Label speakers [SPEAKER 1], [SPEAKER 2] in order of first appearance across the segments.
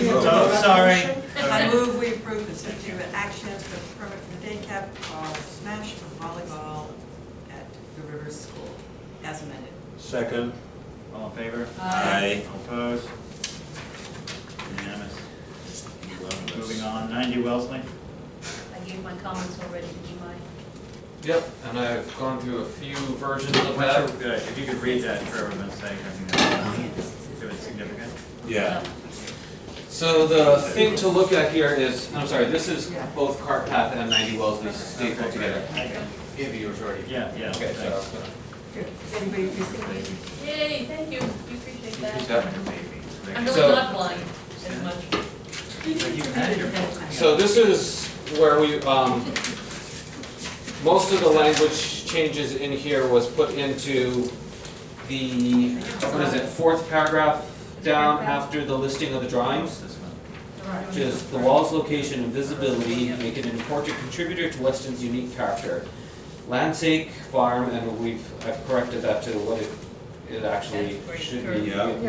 [SPEAKER 1] Oh, sorry.
[SPEAKER 2] I move we approve the substitute action for the permit for the day cap of Smash for volleyball at the River School as amended.
[SPEAKER 1] Second. All in favor?
[SPEAKER 2] Aye.
[SPEAKER 1] All Opposed? Unanimous. Moving on, ninety Wellesley.
[SPEAKER 3] I gave my comments already, did you mind?
[SPEAKER 4] Yep, and I've gone through a few versions of
[SPEAKER 1] Good,
[SPEAKER 4] that.
[SPEAKER 1] if you could read that for everyone's sake, I think
[SPEAKER 4] Oh,
[SPEAKER 1] that's, if it's significant.
[SPEAKER 5] Yeah.
[SPEAKER 4] So the thing to look at here is, I'm sorry, this is both cart path and ninety Wellesley stapled together.
[SPEAKER 1] Okay.
[SPEAKER 4] Give you yours already.
[SPEAKER 1] Yeah, yeah.
[SPEAKER 4] Okay, so I
[SPEAKER 1] thanks.
[SPEAKER 4] was gonna
[SPEAKER 2] Good. Is anybody missing anything?
[SPEAKER 3] Yay, thank you, we appreciate
[SPEAKER 4] use
[SPEAKER 3] that.
[SPEAKER 4] that.
[SPEAKER 3] I'm
[SPEAKER 1] Maybe.
[SPEAKER 3] really
[SPEAKER 4] So-
[SPEAKER 3] not blind as much.
[SPEAKER 1] But you had your-
[SPEAKER 4] So this is where we, um, most of the language changes in here was put into the, what is it, fourth paragraph down after the listing of the drawings,
[SPEAKER 1] This one.
[SPEAKER 4] which is the wall's location and visibility make it an important contributor to Weston's unique character. Landsake Farm, and we've, I've corrected that to what it, it actually
[SPEAKER 3] That's great.
[SPEAKER 4] should be,
[SPEAKER 5] Yeah.
[SPEAKER 2] Yes.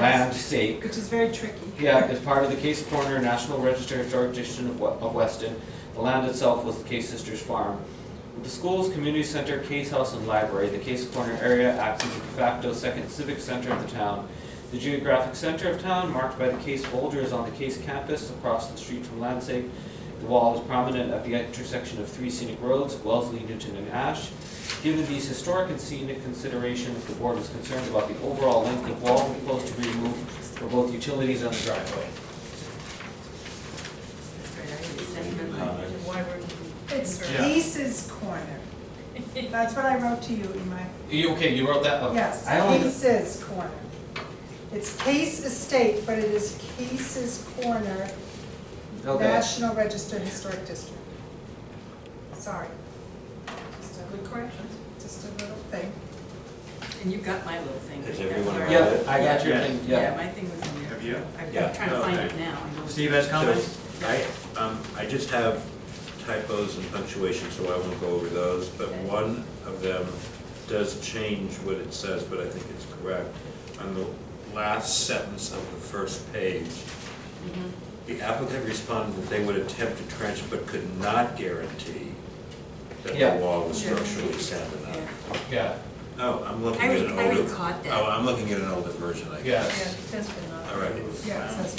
[SPEAKER 4] Landsake.
[SPEAKER 2] Which is very tricky.
[SPEAKER 4] Yeah, as part of the Case Corner National Register Historic District of We- of Weston, the land itself was the Case Sisters Farm. With the schools, community center, Case House, and library, the Case Corner area acts as the de facto second civic center of the town. The geographic center of town, marked by the Case Boulder, is on the Case campus across the street from Landsake. The wall is prominent at the intersection of three scenic roads, Wellesley, Newton, and Ash. Given these historic and scenic considerations, the board was concerned about the overall length of wall proposed to be removed for both utilities and the driveway.
[SPEAKER 6] It's
[SPEAKER 1] Yeah.
[SPEAKER 6] Lisa's corner. That's what I wrote to you in my,
[SPEAKER 4] You, okay, you wrote that, okay.
[SPEAKER 6] yes,
[SPEAKER 4] I only,
[SPEAKER 6] Case's corner. It's Case Estate, but it is Case's Corner,
[SPEAKER 4] okay,
[SPEAKER 6] National Register Historic District. Sorry. Just a little correction, just a little thing.
[SPEAKER 2] And you got my little thing.
[SPEAKER 5] Has everyone
[SPEAKER 2] That's all
[SPEAKER 5] read
[SPEAKER 2] right.
[SPEAKER 4] yeah, I got your
[SPEAKER 1] Yeah.
[SPEAKER 4] thing,
[SPEAKER 2] Yeah,
[SPEAKER 4] yeah.
[SPEAKER 2] my thing was in there.
[SPEAKER 1] Have you?
[SPEAKER 2] I'm
[SPEAKER 5] Yeah.
[SPEAKER 2] trying to find it
[SPEAKER 1] Okay.
[SPEAKER 2] now. I know.
[SPEAKER 1] Steve has comments?
[SPEAKER 5] I, um, I just have typos and punctuation, so I won't go over those, but one of them does change what it says, but I think it's correct. On the last sentence of the first page,
[SPEAKER 4] Mm-hmm.
[SPEAKER 5] the applicant responded that they would attempt to trench but could not guarantee that the
[SPEAKER 4] Yeah.
[SPEAKER 5] wall was structurally sound enough.
[SPEAKER 2] Yeah.
[SPEAKER 4] Yeah,
[SPEAKER 5] Oh, I'm looking
[SPEAKER 2] I
[SPEAKER 5] at
[SPEAKER 2] re-
[SPEAKER 5] an
[SPEAKER 2] I
[SPEAKER 5] older.
[SPEAKER 2] recaught that.
[SPEAKER 5] Oh, I'm looking at an older version, I guess.
[SPEAKER 4] yeah.
[SPEAKER 3] That's been on.
[SPEAKER 5] All right,
[SPEAKER 6] Yeah, it says.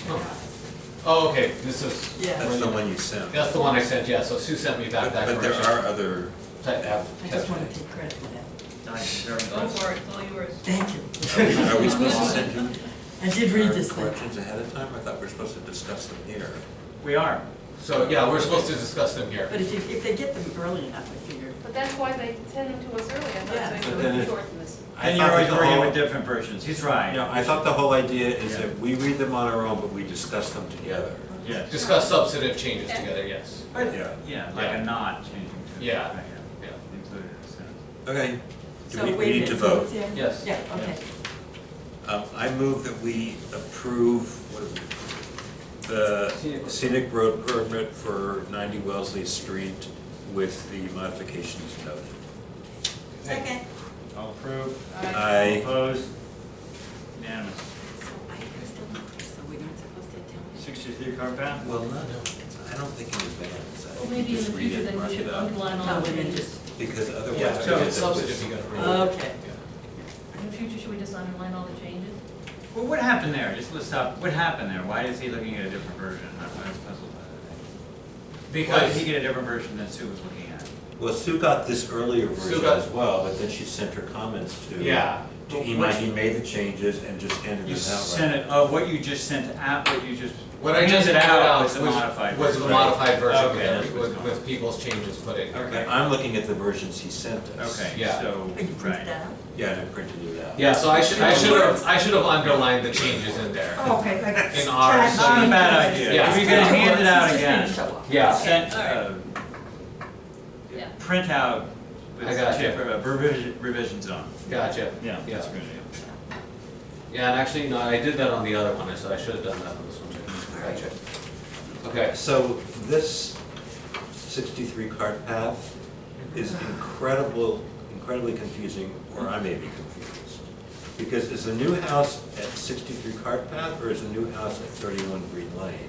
[SPEAKER 4] Oh, okay, this is.
[SPEAKER 2] Yeah.
[SPEAKER 5] that's the one you sent.
[SPEAKER 4] That's the one I sent, yeah, so Sue sent me back
[SPEAKER 5] But
[SPEAKER 4] that
[SPEAKER 5] but there
[SPEAKER 4] correction.
[SPEAKER 5] are other,
[SPEAKER 4] Type app-
[SPEAKER 2] I just
[SPEAKER 4] type.
[SPEAKER 2] want to take credit for that.
[SPEAKER 1] Nice, very
[SPEAKER 3] Go
[SPEAKER 1] impressive.
[SPEAKER 3] for it, it's all yours.
[SPEAKER 2] Thank you.
[SPEAKER 5] are we- are we supposed to send you
[SPEAKER 2] I did read this
[SPEAKER 5] our
[SPEAKER 2] thing.
[SPEAKER 5] corrections ahead of time? I thought we were supposed to discuss them here.
[SPEAKER 1] We are.
[SPEAKER 4] So, yeah, we're supposed to discuss them here.
[SPEAKER 2] But if you, if they get them early enough, I figure.
[SPEAKER 7] But that's why they send them to us early, I
[SPEAKER 2] Yeah.
[SPEAKER 7] thought, so
[SPEAKER 5] But
[SPEAKER 7] we
[SPEAKER 5] then
[SPEAKER 7] can
[SPEAKER 5] it-
[SPEAKER 7] shorten this.
[SPEAKER 5] I
[SPEAKER 1] And
[SPEAKER 5] thought
[SPEAKER 1] you're always
[SPEAKER 5] the
[SPEAKER 1] working
[SPEAKER 5] whole-
[SPEAKER 1] with different versions, he's right.
[SPEAKER 5] No, I thought the whole idea is
[SPEAKER 1] Yeah.
[SPEAKER 5] that we read them on our own, but we discuss them together.
[SPEAKER 1] Yes,
[SPEAKER 4] Discuss substantive changes together, yes.
[SPEAKER 5] Yeah,
[SPEAKER 1] yeah, like a knot changing to.
[SPEAKER 4] Yeah.
[SPEAKER 1] Right,
[SPEAKER 4] Yeah.
[SPEAKER 1] Included in the sentence.
[SPEAKER 5] okay. Do
[SPEAKER 2] So
[SPEAKER 5] we,
[SPEAKER 2] wait
[SPEAKER 5] we
[SPEAKER 2] a
[SPEAKER 5] need to
[SPEAKER 2] minute,
[SPEAKER 5] vote?
[SPEAKER 2] so it's in?
[SPEAKER 4] Yes.
[SPEAKER 2] Yeah, okay.
[SPEAKER 5] Um, I move that we approve, what is it? The scenic road permit for ninety Wellesley Street with the modifications noted.
[SPEAKER 2] Second.
[SPEAKER 1] All approved,
[SPEAKER 5] I,
[SPEAKER 1] opposed, unanimous.
[SPEAKER 2] So I was done, so we're not supposed to tell me.
[SPEAKER 1] Sixty-three Carpath?
[SPEAKER 5] well, no, I don't think in advance. I
[SPEAKER 3] Well,
[SPEAKER 5] think
[SPEAKER 3] maybe
[SPEAKER 5] you
[SPEAKER 3] in the
[SPEAKER 5] just read
[SPEAKER 3] future
[SPEAKER 5] it,
[SPEAKER 3] then
[SPEAKER 5] mark
[SPEAKER 3] we
[SPEAKER 5] it
[SPEAKER 3] should
[SPEAKER 5] up.
[SPEAKER 3] underline all
[SPEAKER 2] No,
[SPEAKER 3] the
[SPEAKER 2] we didn't
[SPEAKER 3] changes.
[SPEAKER 2] just,
[SPEAKER 5] Because otherwise.
[SPEAKER 4] Yeah,
[SPEAKER 5] we
[SPEAKER 4] so
[SPEAKER 5] get
[SPEAKER 4] it's
[SPEAKER 5] the-
[SPEAKER 4] substantive, you gotta read it.
[SPEAKER 2] okay.
[SPEAKER 4] Yeah.
[SPEAKER 3] In the future, should we just underline all the changes?
[SPEAKER 1] Well, what happened there? Just let's stop, what happened there? Why is he looking at a different version? I I was puzzled by that. Why did he
[SPEAKER 4] Because,
[SPEAKER 1] get a different version than Sue was looking at?
[SPEAKER 5] Well, Sue got this earlier version
[SPEAKER 4] got-
[SPEAKER 5] as well, but then she sent her comments to.
[SPEAKER 4] yeah,
[SPEAKER 5] To Imai, he made the changes and just handed
[SPEAKER 1] You
[SPEAKER 5] them out, right?
[SPEAKER 1] sent it, oh, what you just sent out, what you just.
[SPEAKER 4] what I just
[SPEAKER 1] handed
[SPEAKER 4] put out
[SPEAKER 1] Was
[SPEAKER 4] was,
[SPEAKER 1] the modified
[SPEAKER 4] was
[SPEAKER 1] version.
[SPEAKER 4] the modified version
[SPEAKER 1] Okay, that's
[SPEAKER 4] with,
[SPEAKER 1] what's
[SPEAKER 4] with-
[SPEAKER 1] going on.
[SPEAKER 4] with people's changes put in.
[SPEAKER 1] Okay.
[SPEAKER 5] I'm looking at the versions he sent us.
[SPEAKER 1] Okay,
[SPEAKER 4] Yeah.
[SPEAKER 1] so,
[SPEAKER 2] Are you printing
[SPEAKER 1] right.
[SPEAKER 2] that out?
[SPEAKER 5] Yeah, and I printed it out.
[SPEAKER 4] Yeah, so I should, I should have, I should have underlined the changes in there.
[SPEAKER 6] Oh, Okay, like.
[SPEAKER 4] In ours.
[SPEAKER 1] Not a bad idea.
[SPEAKER 4] Yeah.
[SPEAKER 1] If you're gonna hand it out
[SPEAKER 2] It's just gonna
[SPEAKER 1] again,
[SPEAKER 2] show up.
[SPEAKER 4] Yeah,
[SPEAKER 1] sent uh,
[SPEAKER 3] Okay, all
[SPEAKER 1] a
[SPEAKER 3] Yeah.
[SPEAKER 1] printout
[SPEAKER 4] I
[SPEAKER 1] with
[SPEAKER 4] got
[SPEAKER 1] chip-
[SPEAKER 4] you.
[SPEAKER 1] uh, revision, revisions on.
[SPEAKER 4] gotcha.
[SPEAKER 1] Yeah,
[SPEAKER 4] Yeah.
[SPEAKER 1] that's a good idea.
[SPEAKER 4] Yeah, and actually, no, I did that on the other one, so I should have done that on this one too. Gotcha. Okay,
[SPEAKER 5] So this sixty-three cart path is incredible, incredibly confusing, or I may be confused. Because is the new house at sixty-three cart path, or is the new house at thirty-one Green Lane?